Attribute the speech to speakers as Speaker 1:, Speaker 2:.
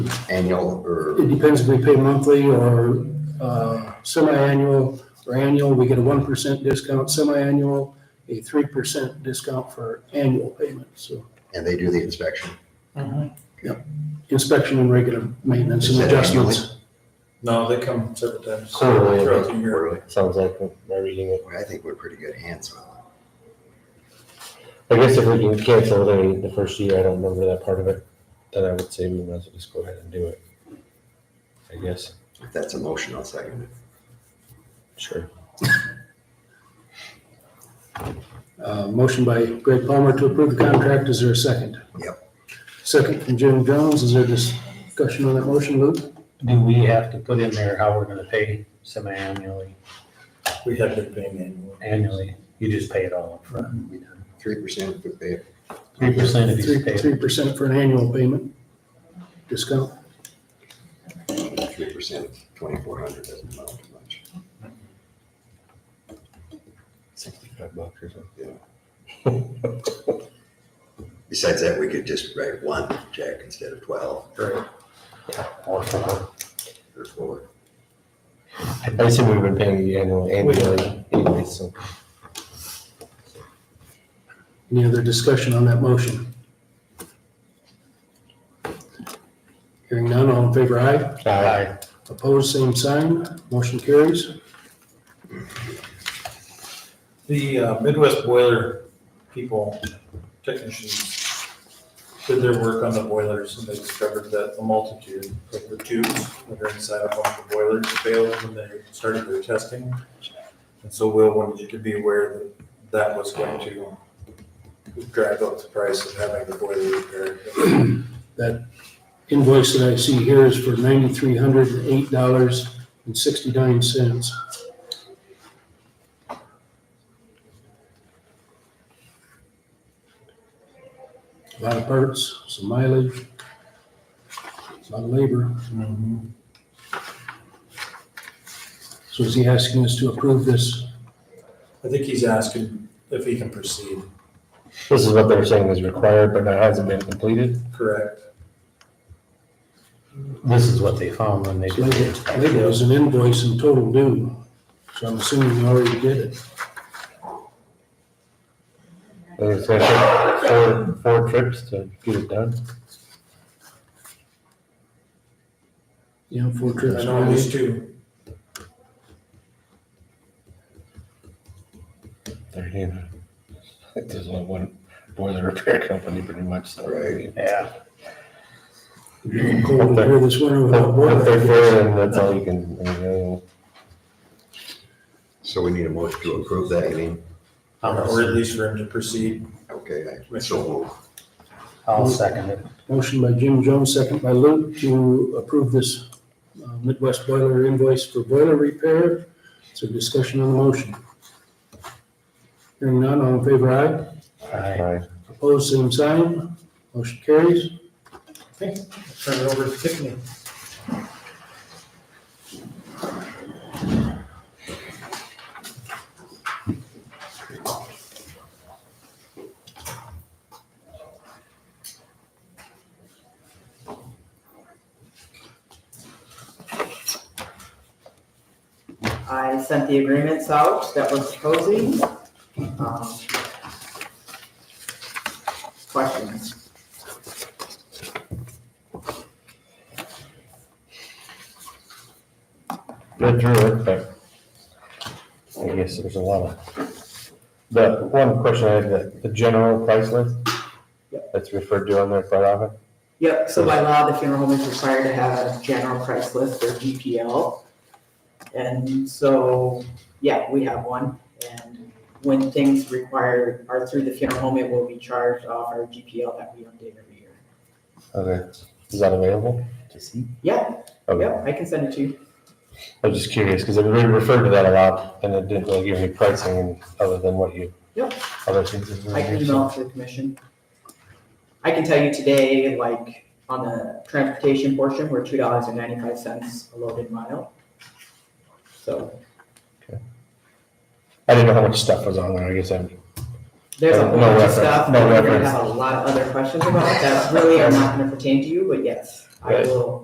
Speaker 1: annual or,
Speaker 2: It depends if we pay monthly or uh, semi-annual or annual, we get a one percent discount semi-annual, a three percent discount for annual payment, so
Speaker 1: and they do the inspection.
Speaker 2: inspection and regular maintenance
Speaker 1: Is
Speaker 2: and
Speaker 1: that
Speaker 2: adjustments.
Speaker 3: No, they come several times
Speaker 4: Quarterly, I
Speaker 3: throughout the year.
Speaker 1: Really?
Speaker 4: Sounds like we're reading it.
Speaker 1: I think we're pretty good hands on it.
Speaker 4: I guess if we can cancel it in the first year, I don't remember that part of it, then I would say we might as well just go ahead and do it. I guess,
Speaker 1: If that's a motion, I'll second it.
Speaker 4: sure.
Speaker 2: Uh, Motion by Greg Palmer to approve the contract, is there a second?
Speaker 1: Yep.
Speaker 2: Second from Jim Jones, is there discussion on that motion, Luke?
Speaker 5: Do we have to put in there how we're gonna pay semi-annually,
Speaker 3: We have been paying annually.
Speaker 5: annually? You just pay it all upfront.
Speaker 1: Three percent if we pay it.
Speaker 5: Three percent if you pay it.
Speaker 2: Three percent for an annual payment discount.
Speaker 1: Three percent, twenty-four hundred doesn't amount to much.
Speaker 4: Sixty-five bucks or something.
Speaker 1: Besides that, we could just write one check instead of twelve
Speaker 5: Right.
Speaker 4: Or something.
Speaker 1: or four.
Speaker 4: I assume we've been paying the annual, annually anyway, so.
Speaker 2: Any other discussion on that motion? Hearing none, all in favor, aye.
Speaker 4: Aye.
Speaker 2: Opposed, same sign. Motion carries.
Speaker 3: The uh, Midwest boiler people, technicians, did their work on the boilers and they discovered that a multitude of the tubes that are inside of one of the boilers failed when they started their testing. And so Will wanted you to be aware that that was going to drive up the price of having the boiler repaired.
Speaker 2: That invoice that I see here is for ninety-three hundred and eight dollars and sixty-nine cents. A lot of parts, some mileage, a lot of labor. So is he asking us to approve this?
Speaker 3: I think he's asking if he can proceed,
Speaker 4: This is what they're saying is required, but that hasn't been completed.
Speaker 3: correct?
Speaker 5: This is what they found when they did
Speaker 2: Labor
Speaker 5: it.
Speaker 2: labor is an invoice in total due, so I'm assuming we already did it.
Speaker 4: And it's gonna take four, four trips to get it done.
Speaker 2: Yeah, four trips.
Speaker 3: I know at least two.
Speaker 4: They're, you know, there's only one boiler repair company pretty much, so.
Speaker 1: Right.
Speaker 5: Yeah,
Speaker 2: Cold here this winter without a
Speaker 4: If they're
Speaker 2: boiler.
Speaker 4: fair, then that's all you can, you know,
Speaker 1: So we need a motion to approve that, you mean?
Speaker 3: Or at least for him to proceed.
Speaker 1: Okay, I- so we'll-
Speaker 5: I'll second it.
Speaker 2: Motion by Jim Jones, second by Luke, to approve this uh, Midwest boiler invoice for boiler repair. So discussion on the motion. Hearing none, all in favor, aye.
Speaker 5: Aye.
Speaker 4: aye.
Speaker 2: Opposed, same sign. Motion carries.
Speaker 3: Okay, turn it over to Tiffany.
Speaker 6: I sent the agreements out that was closing. Um, Questions?
Speaker 4: Good through it, but I guess there's a lot of, the one question I had, the, the general price list that's referred to on there quite often.
Speaker 6: Yep, so by law, the funeral home is required to have a general price list or GPL. And so, yeah, we have one. And when things required are through the funeral home, it will be charged off our GPL that we update every year.
Speaker 4: Okay, is that available? to see?
Speaker 6: Yeah,
Speaker 4: Okay,
Speaker 6: yep, I can send it to you.
Speaker 4: I was just curious, because everybody referred to that a lot, and it didn't really give me pricing and- other than what you.
Speaker 6: Yep.
Speaker 4: Other things. that were
Speaker 6: I can
Speaker 4: here, so-
Speaker 6: email it to the commission. I can tell you today, like, on the transportation portion, we're two dollars and ninety-five cents a loaded mile. So
Speaker 4: I didn't know how much stuff was on there, I guess I'm,
Speaker 6: there's a
Speaker 4: Uh,
Speaker 6: whole
Speaker 4: no
Speaker 6: bunch of
Speaker 4: reference,
Speaker 6: stuff.
Speaker 4: no
Speaker 6: that We're gonna
Speaker 4: reference.
Speaker 6: have a lot of other questions about that really are not gonna pertain to you, but yes. I
Speaker 4: Right.
Speaker 6: will